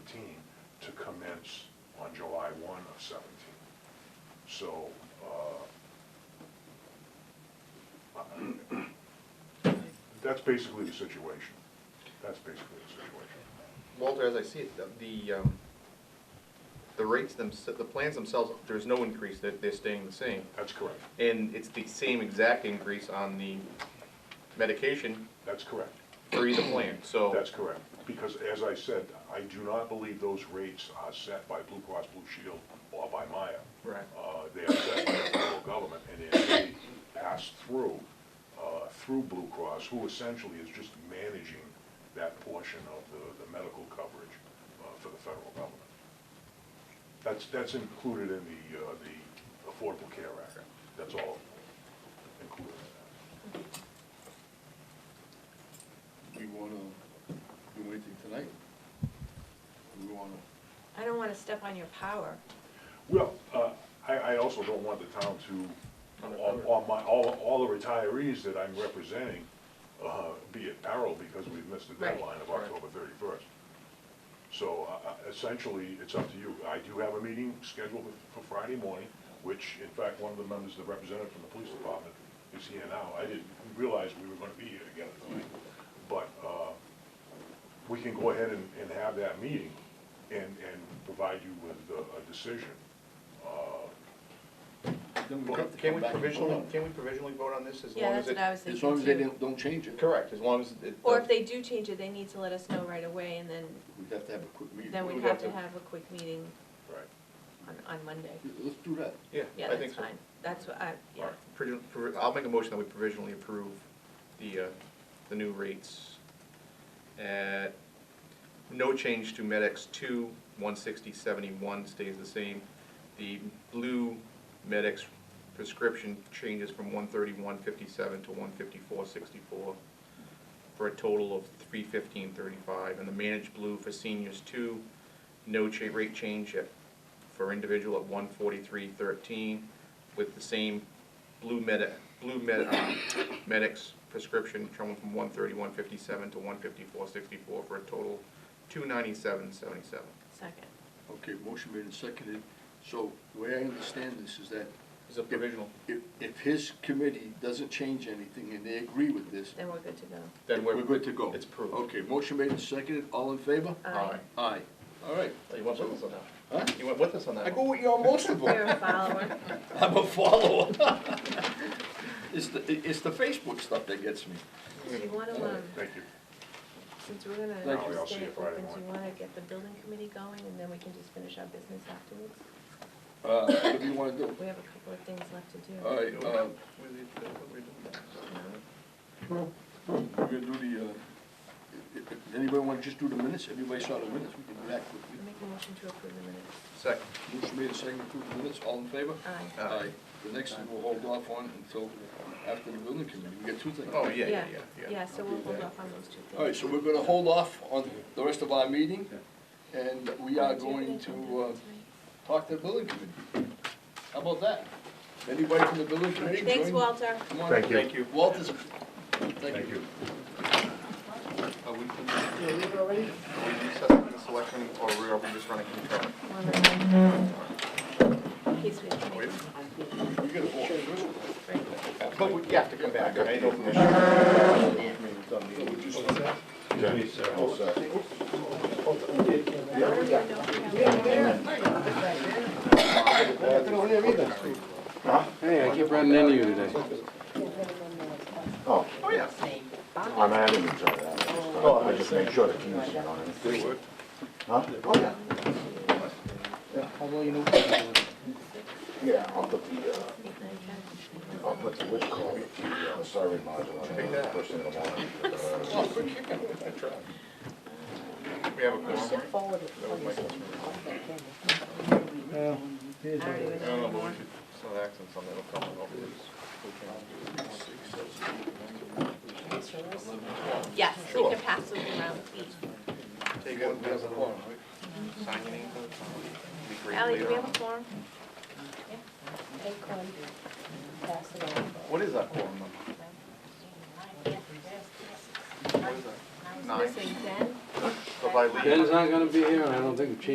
ordinance on July one of seventeen. So, uh, that's basically the situation. That's basically the situation. Walter, as I see it, the- the, um, the rates themselves, the plans themselves, there's no increase, they're, they're staying the same. That's correct. And it's the same exact increase on the medication That's correct. for either plan, so. That's correct. Because as I said, I do not believe those rates are set by Blue Cross Blue Shield or by Maya. Right. Uh, They are set by the federal government and they're passed through, uh, through Blue Cross, who essentially is just managing that portion of the, the medical coverage uh, for the federal government. That's, that's included in the, uh, the Affordable Care Act. That's all included in that. We wanna, do anything tonight? We wanna, I don't want to step on your power. Well, uh, I, I also don't want the town to, all, all my, all, all the retirees that I'm representing, uh, be at peril because we've missed the Right. deadline of October thirty-first. So, uh, uh, essentially, it's up to you. I do have a meeting scheduled for Friday morning, which, in fact, one of the members, the representative from the police department is here now. I didn't realize we were gonna be here together tonight, but, uh, we can go ahead and, and have that meeting and, and provide you with a, a decision. Uh, then we Well, have to Can come we back and vote provisionally, on it. can we provisionally vote on this as Yeah, long that's as it? what I was As long as they thinking too. don't, don't change it. Correct, as long as it. Or if they do change it, they need to let us know right away, and then, We'd have to have a quick meeting. then we'd would have have to to- have a quick meeting Right. on, on Monday. Let's do that. Yeah, I Yeah, that's think so. fine. That's what I, yeah. Alright. Provi- provi- I'll make a motion that we provisionally approve the, uh, the new rates at no change to MedX two, one sixty seventy-one stays the same. The blue MedX prescription changes from one thirty-one fifty-seven to one fifty-four sixty-four for a total of three fifteen thirty-five. And the managed blue for seniors two, no cha- rate change at, for individual at one forty-three thirteen with the same blue med, blue med, uh, medics prescription coming from one thirty-one fifty-seven to one fifty-four sixty-four for a total two ninety-seven seventy-seven. Second. Okay, motion made and seconded. So the way I understand this is that Is it provisional? if, if his committee doesn't change anything and they agree with this, Then we're good to go. Then we're. we're good to go. It's approved. Okay, motion made and seconded. All in favor? Aye. Aye. All right. So You went with us on that? Huh? You went with us on that? I go with you on most of You're a them. follower. I'm a follower. It's the, it's the Facebook stuff that gets me. Do you want to, um, Thank you. since we're gonna Thank you. I'll see stay you Friday open, do you morning. want to get the building committee going, and then we can just finish our business afterwards? Uh, what do you wanna do? We have a couple of things left to do. All right, uh, No? we're gonna do the, uh, if, if anybody wanna just do the minutes, everybody saw the minutes, we can do that quickly. Make a motion to approve the minutes. Second. Uh, Motion made, and seconded, approve the minutes, all in favor? Aye. Aye. The next thing we'll hold off on until after the building committee, we got two things. Oh, yeah, yeah, yeah, yeah. Yeah, so we'll hold off on those two things. All right, so we're gonna hold off on the rest of our meeting, and we are going to, uh, talk to the building committee. How about that? Anybody from the building committee? Thanks, join? Walter. Come on Thank up. you. Thank you. Walter's, a- Thank thank you. you. Are we, Yeah, leave it already? are we recessing the selection or are we just running concurrent? He's with me. We gotta vote first. But we have to come back, I know for So we just- I don't even know if we have- Hey, I keep running into you today. Oh, Oh, yeah. I'm adding each other. I just make sure the keys are on it. They would. Huh? Oh, yeah. Yeah, I'll put the, uh, I'll put the, what you call it, the uh, survey module on it first thing in the morning. Uh, Oh, good kicking. I tried. We have a quorum. right? Forward it before you say something. I don't even I don't know, but know we anymore. should, some accents on that'll come over Yes, you can pass them around. Take one, pass it along. Sign your name. Be great Ally, do we later have on. a form? Take one, pass it on. What is that quorum number? What is that? Nine. Missing Ben? So if I leave- Ben's not gonna be here, and I don't think Chief